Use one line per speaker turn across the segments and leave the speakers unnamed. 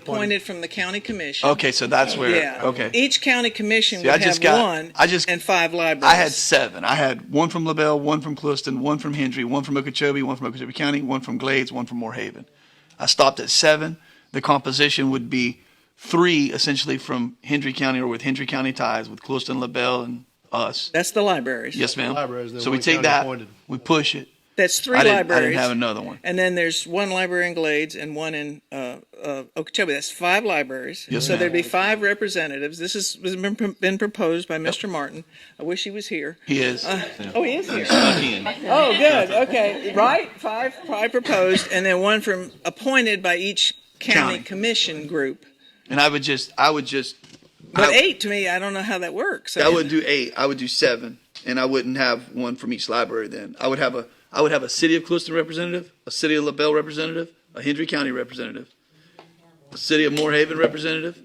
appointed from the county commission.
Okay, so that's where,
Yeah.
okay.
Each county commission
See, I
would
just
have
got-
one
I just-
and five libraries.
I had seven. I had one from LaBelle, one from Clueston, one from Hendry, one from Okeechobee, one from Okeechobee County, one from Glades, one from Moorhaven. I stopped at seven. The composition would be three essentially from Hendry County or with Hendry County ties with Clueston, LaBelle, and us.
That's the libraries.
Yes, ma'am.
Libraries, they're
So we
only
take
county
that,
appointed.
we push it.
That's three
I didn't, I
libraries.
didn't have another one.
And then there's one library in Glades and one in uh, uh, Okeechobee. That's five libraries.
Yes,
so
ma'am.
there'd be five representatives. This has has been, been proposed by Mr. Martin. I wish he was here.
He is.
Oh, he is here. Oh, good. Okay. Right? Five, five proposed, and then one from appointed by each county,
County.
commission group.
And I would just, I would just,
But
I-
eight to me, I don't know how that works.
I would do eight. I would do seven, and I wouldn't have one from each library. Then I would have a I would have a city of Clueston representative, a city of LaBelle representative, a Hendry County representative, a city of Moorhaven representative,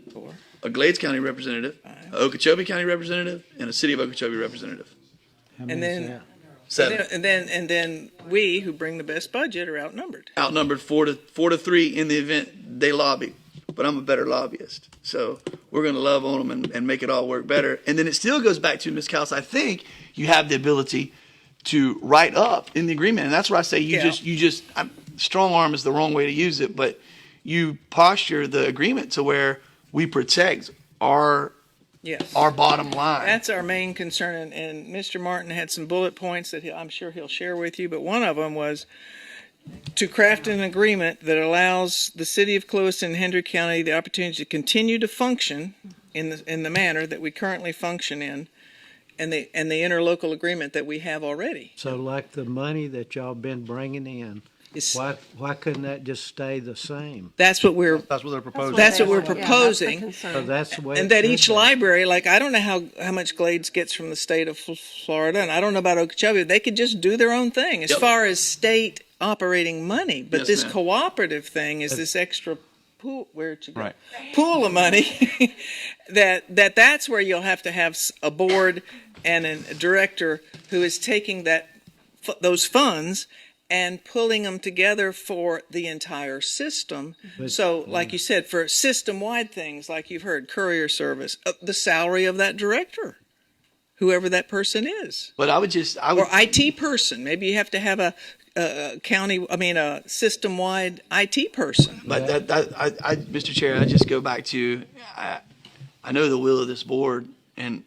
a Glades County representative, a Okeechobee County representative, and a city of Okeechobee representative.
and then,
Seven
and then, and then we who bring the best budget are outnumbered.
outnumbered four to four to three in the event they lobby. But I'm a better lobbyist, so we're going to love on them and, and make it all work better. And then it still goes back to Ms. Kaus. I think you have the ability to write up in the agreement, and that's where I say you
Yeah.
just you just i strong arm is the wrong way to use it, but you posture the agreement to where we protect our
Yes.
our bottom line.
That's our main concern, and, and Mr. Martin had some bullet points that he, I'm sure he'll share with you, but one of them was to craft an agreement that allows the city of Clovis and Hendry County the opportunity to continue to function in the, in the manner that we currently function in, and the, and the interlocal agreement that we have already.
So like the money that y'all been bringing in,
It's-
why, why couldn't that just stay the same?
That's what we're,
That's what they're proposing.
that's what we're
Yeah, that's the
proposing,
concern.
So that's the way.
and
it
that
should
each
be.
library, like, I don't know how, how much Glades gets from the state of Fl- Florida, and I don't know about Okeechobee, they could just do their own thing as
Yep.
far as state operating money. But
Yes,
this
ma'am.
cooperative thing is this extra pool, where'd you go? Pool of money, that, that that's where you'll have to have s- a board and a director who is taking that, fu- those funds and pulling them together for the entire system. So, like you said, for system-wide things, like you've heard, courier service, uh, the salary of that director, whoever that person is,
But I would just I would
or IT person. Maybe you have to have a, a a county, I mean, a system-wide IT person.
But that, that I, I, Mr. Chair, I just go back to, I, I know the will of this board, and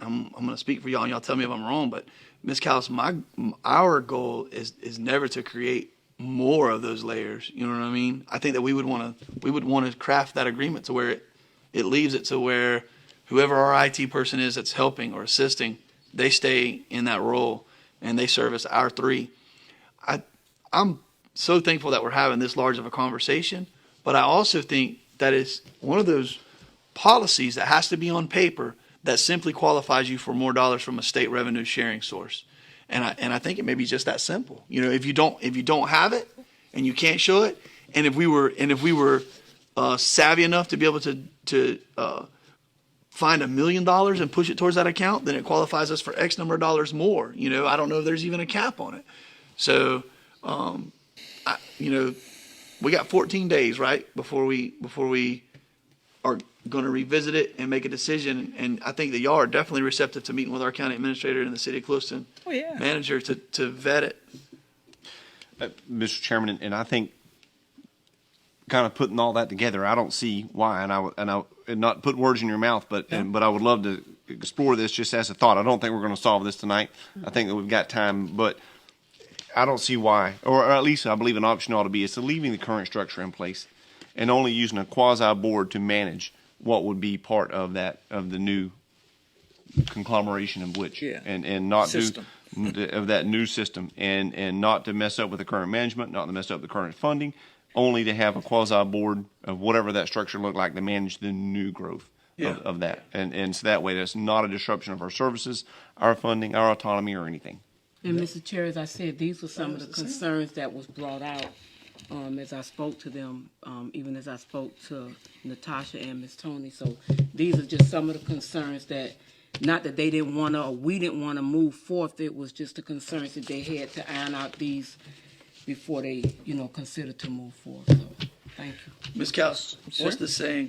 I'm, I'm going to speak for y'all, and y'all tell me if I'm wrong, but Ms. Cowles, my, our goal is, is never to create more of those layers. You know what I mean? I think that we would want to, we would want to craft that agreement to where it, it leaves it to where whoever our IT person is that's helping or assisting, they stay in that role and they service our three. I, I'm so thankful that we're having this large of a conversation, but I also think that it's one of those policies that has to be on paper that simply qualifies you for more dollars from a state revenue sharing source. And I and I think it may be just that simple. You know, if you don't if you don't have it and you can't show it, and if we were and if we were uh, savvy enough to be able to to uh, find a million dollars and push it towards that account, then it qualifies us for X number of dollars more. You know, I don't know if there's even a cap on it. So, um, I, you know, we got 14 days, right, before we before we are going to revisit it and make a decision. And I think that y'all are definitely receptive to meeting with our county administrator and the city of Clueston
Oh, yeah.
manager to to vet it.
Mr. Chairman, and- and I think kind of putting all that together, I don't see why, and I would- and I and not put words in your mouth, but and, but I would love to explore this just as a thought. I don't think we're going to solve this tonight. I think that we've got time, but I don't see why, or, or at least I believe an option ought to be is to leaving the current structure in place and only using a quasi board to manage what would be part of that of the new conglomeration of which
Yeah.
and and not
System.
do of that new system and and not to mess up with the current management not to mess up the current funding only to have a quasi board of whatever that structure looked like to manage the new growth of, of that and and so that way that's not a disruption of our services our funding our autonomy or anything
And Mr. Chair, as I said, these were some of the concerns that was brought out um, as I spoke to them, um, even as I spoke to Natasha and Miss Tony. So these are just some of the concerns that, not that they didn't want to or we didn't want to move forth. It was just the concerns that they had to iron out these before they, you know, consider to move forward. So Thank you.
Ms. Kaus, what's the saying?